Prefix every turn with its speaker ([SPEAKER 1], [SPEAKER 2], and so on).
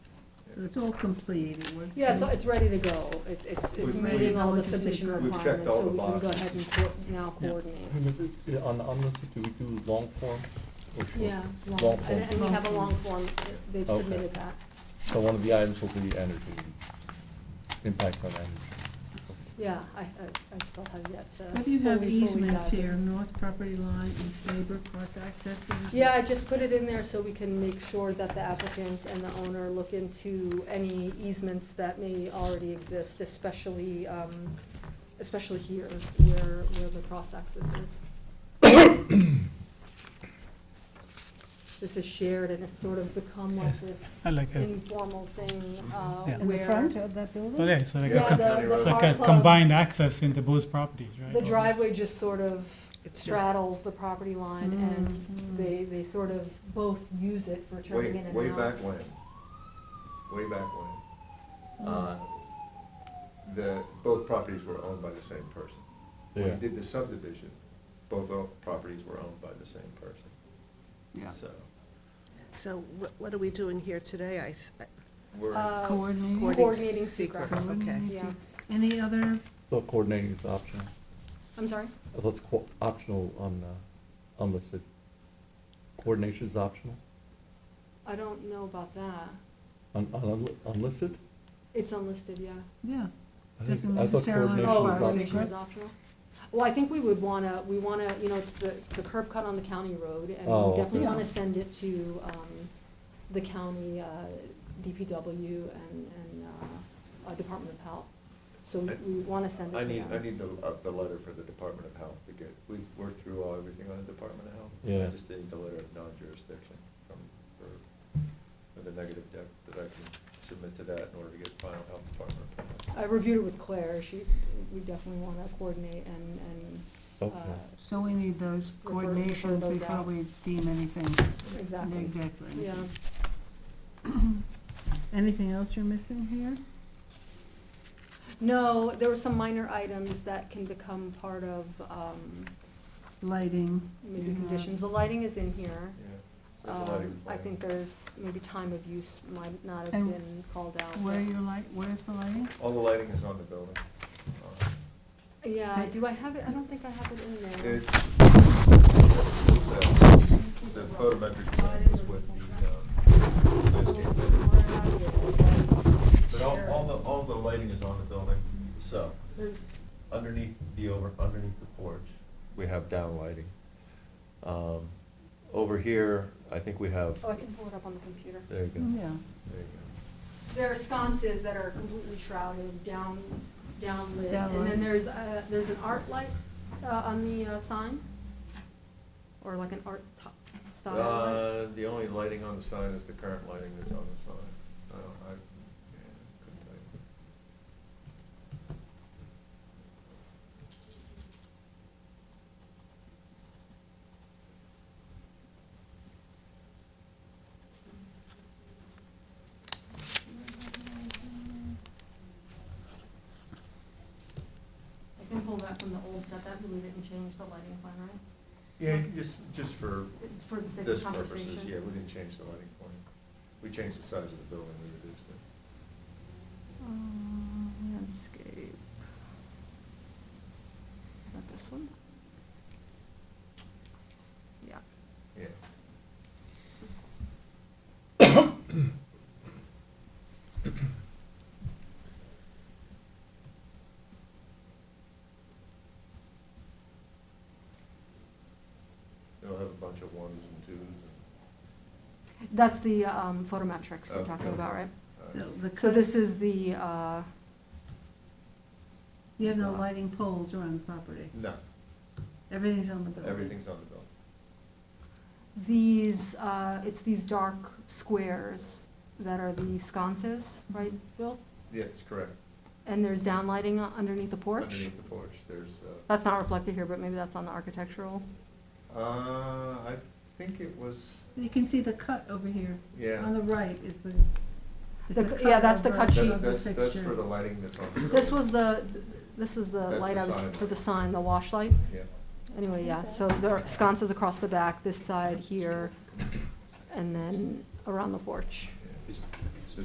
[SPEAKER 1] so it's all complete. It went
[SPEAKER 2] Yeah, it's,
[SPEAKER 1] through-
[SPEAKER 2] it's ready to go. It's, it's, it's
[SPEAKER 3] We've
[SPEAKER 2] meeting
[SPEAKER 1] made-
[SPEAKER 2] all the
[SPEAKER 1] We've
[SPEAKER 2] submission
[SPEAKER 1] checked
[SPEAKER 3] the
[SPEAKER 1] all
[SPEAKER 2] requirements, so we can go
[SPEAKER 3] boxes.
[SPEAKER 2] ahead and co- now
[SPEAKER 4] Yeah.
[SPEAKER 2] coordinate.
[SPEAKER 5] Yeah, On the unlisted, do we do long form or short?
[SPEAKER 2] Yeah, long,
[SPEAKER 5] Long
[SPEAKER 2] and,
[SPEAKER 5] form.
[SPEAKER 2] and we have a long form. They've
[SPEAKER 5] Okay.
[SPEAKER 2] submitted that.
[SPEAKER 5] So one of the items will be energy, impact on energy.
[SPEAKER 2] Yeah, I, I, I still have yet to.
[SPEAKER 1] Have you have
[SPEAKER 2] fully- fully
[SPEAKER 1] easements
[SPEAKER 2] dive in.
[SPEAKER 1] here, north property line, east neighbor, cross access? what is
[SPEAKER 2] Yeah, I
[SPEAKER 1] it?
[SPEAKER 2] just put it in there so we can make sure that the applicant and the owner look into any easements that may already exist, especially, um, especially here where, where the cross access is. This is shared and it's sort of become like
[SPEAKER 4] Yes,
[SPEAKER 2] this
[SPEAKER 4] I like it.
[SPEAKER 2] informal thing, uh,
[SPEAKER 4] Yeah.
[SPEAKER 6] In the
[SPEAKER 2] where.
[SPEAKER 6] front of that building?
[SPEAKER 4] Well, yeah, it's like
[SPEAKER 2] Yeah,
[SPEAKER 4] a, com-
[SPEAKER 2] the,
[SPEAKER 4] it's
[SPEAKER 2] the
[SPEAKER 4] like
[SPEAKER 2] car
[SPEAKER 4] a
[SPEAKER 2] club,
[SPEAKER 4] combined access into both properties, right?
[SPEAKER 2] The
[SPEAKER 4] Almost.
[SPEAKER 2] driveway just sort of
[SPEAKER 6] It's just,
[SPEAKER 2] straddles the property line and
[SPEAKER 1] Mm, mm.
[SPEAKER 2] they, they sort of both use it for
[SPEAKER 3] Way,
[SPEAKER 2] turning in and out.
[SPEAKER 3] way back when, way back when, uh, the, both properties were owned by the same person. When
[SPEAKER 5] Yeah.
[SPEAKER 3] you did the subdivision, both o- properties were owned by the same person.
[SPEAKER 1] Yeah.
[SPEAKER 3] So,
[SPEAKER 6] so what, what are we doing here today? I, s-
[SPEAKER 3] we're,
[SPEAKER 2] Uh,
[SPEAKER 1] Coordinating.
[SPEAKER 2] Coordinating
[SPEAKER 6] coordinating
[SPEAKER 2] secret.
[SPEAKER 6] secret, okay.
[SPEAKER 2] Yeah,
[SPEAKER 1] Any other,
[SPEAKER 5] Thought coordinating is optional.
[SPEAKER 2] I'm sorry?
[SPEAKER 5] I thought it's co- optional on uh, unlisted. Coordination is optional
[SPEAKER 2] I don't know about that.
[SPEAKER 5] on, on unli- unlisted?
[SPEAKER 2] It's unlisted, yeah.
[SPEAKER 1] yeah,
[SPEAKER 5] I think-
[SPEAKER 1] Doesn't
[SPEAKER 5] I thought
[SPEAKER 1] necessarily
[SPEAKER 5] coordination
[SPEAKER 2] Oh,
[SPEAKER 1] require
[SPEAKER 5] was optional.
[SPEAKER 2] coordination is optional? Well, I think we would wanna, we wanna, you know, it's the, the curb cut on the county road, and
[SPEAKER 5] Oh,
[SPEAKER 2] we
[SPEAKER 1] okay.
[SPEAKER 2] definitely wanna send it to, um, the county, uh, DPW and, and, uh, uh, Department of Health. So we, we wanna send it
[SPEAKER 3] I
[SPEAKER 2] to
[SPEAKER 3] need,
[SPEAKER 2] them.
[SPEAKER 3] I need the, uh, the letter for the Department of Health to get, we worked through all, everything on the Department of Health.
[SPEAKER 5] Yeah.
[SPEAKER 3] I just need the letter of non-jurisdiction from, for, for the negative deck that I can submit to that in order to get final health department approval.
[SPEAKER 2] I reviewed it with Claire, she, we definitely wanna coordinate and, and,
[SPEAKER 5] Okay.
[SPEAKER 2] uh,
[SPEAKER 1] so we need those
[SPEAKER 2] Refer- refer
[SPEAKER 1] coordinations
[SPEAKER 2] those
[SPEAKER 1] before
[SPEAKER 2] out.
[SPEAKER 1] we deem anything
[SPEAKER 2] exactly,
[SPEAKER 1] neg deck or anything.
[SPEAKER 2] yeah.
[SPEAKER 1] Anything else you're missing here?
[SPEAKER 2] No, there were some minor items that can become part of, um,
[SPEAKER 1] Lighting?
[SPEAKER 2] maybe
[SPEAKER 1] you
[SPEAKER 2] conditions. The lighting is in here.
[SPEAKER 3] Yeah. There's a
[SPEAKER 2] Um,
[SPEAKER 3] lighting
[SPEAKER 2] I
[SPEAKER 3] plan.
[SPEAKER 2] think there's, maybe time of use might not have
[SPEAKER 1] And
[SPEAKER 2] been called out.
[SPEAKER 1] have. Where are
[SPEAKER 2] but-
[SPEAKER 1] your light, where's the lighting?
[SPEAKER 3] All the lighting is on the building. Uh,
[SPEAKER 2] Yeah, do I have it? I don't think I have it in there.
[SPEAKER 3] It's, uh, the the photometric plan is with the, um,
[SPEAKER 2] Oh,
[SPEAKER 3] landscape plan. But all, all the, all the lighting is on the building, so
[SPEAKER 2] There's,
[SPEAKER 3] underneath the over, underneath the porch, we have down lighting. Um, over here, I think we have,
[SPEAKER 2] oh, I can pull it up on the computer.
[SPEAKER 3] there you go,
[SPEAKER 1] Yeah.
[SPEAKER 3] there you
[SPEAKER 2] There are sconces that are completely shrouded, down, downlit. And
[SPEAKER 1] Downlit.
[SPEAKER 2] then there's, uh, there's an art light, uh, on the, uh, sign? Or like an art top
[SPEAKER 3] go.
[SPEAKER 2] style light?
[SPEAKER 3] Uh, the only lighting on the sign is the current lighting that's on the sign. I don't, I, yeah, couldn't tell you.
[SPEAKER 2] I can pull that from the old setup, we didn't change the lighting plan, right?
[SPEAKER 3] Yeah, you can just, just for
[SPEAKER 2] For the sake
[SPEAKER 3] this
[SPEAKER 2] of
[SPEAKER 3] purposes, yeah,
[SPEAKER 2] conversation.
[SPEAKER 3] we didn't change the lighting plan. We changed the size of the building, we reduced it.
[SPEAKER 1] Um, Landscape. Not this one? Yeah.
[SPEAKER 3] Yeah. They'll have a bunch of ones and twos
[SPEAKER 2] That's the um, photometrics you're
[SPEAKER 3] Okay.
[SPEAKER 2] talking about, right?
[SPEAKER 3] and,
[SPEAKER 1] So
[SPEAKER 3] uh,
[SPEAKER 1] the
[SPEAKER 2] So
[SPEAKER 1] cut,
[SPEAKER 2] this is the, uh,
[SPEAKER 1] you have no lighting poles around the property.
[SPEAKER 3] no,
[SPEAKER 1] Everything's on the building.
[SPEAKER 3] everything's on the building.
[SPEAKER 2] these, uh, it's these dark squares that are the sconces, right, Bill?
[SPEAKER 3] Yeah, it's correct,
[SPEAKER 2] And there's downlighting u- underneath the porch?
[SPEAKER 3] underneath the porch, there's, uh,
[SPEAKER 2] That's not reflected here, but maybe that's on the architectural.
[SPEAKER 3] uh, I think it was,
[SPEAKER 1] You can see the cut over here. On
[SPEAKER 3] yeah.
[SPEAKER 1] the right is the, is
[SPEAKER 2] The
[SPEAKER 1] the
[SPEAKER 2] cu- yeah,
[SPEAKER 1] cut
[SPEAKER 2] that's the
[SPEAKER 1] over
[SPEAKER 2] cut
[SPEAKER 1] of
[SPEAKER 2] sheet.
[SPEAKER 3] That's,
[SPEAKER 1] the
[SPEAKER 3] that's, that's
[SPEAKER 1] fixture.
[SPEAKER 3] for the lighting that's on the building.
[SPEAKER 2] This was the, this is the
[SPEAKER 3] That's the
[SPEAKER 2] light I was,
[SPEAKER 3] sign.
[SPEAKER 2] for the sign, the wash light?
[SPEAKER 3] Yeah.
[SPEAKER 2] Anyway, yeah, so there are sconces across the back, this side here, and then around the porch.
[SPEAKER 3] Is,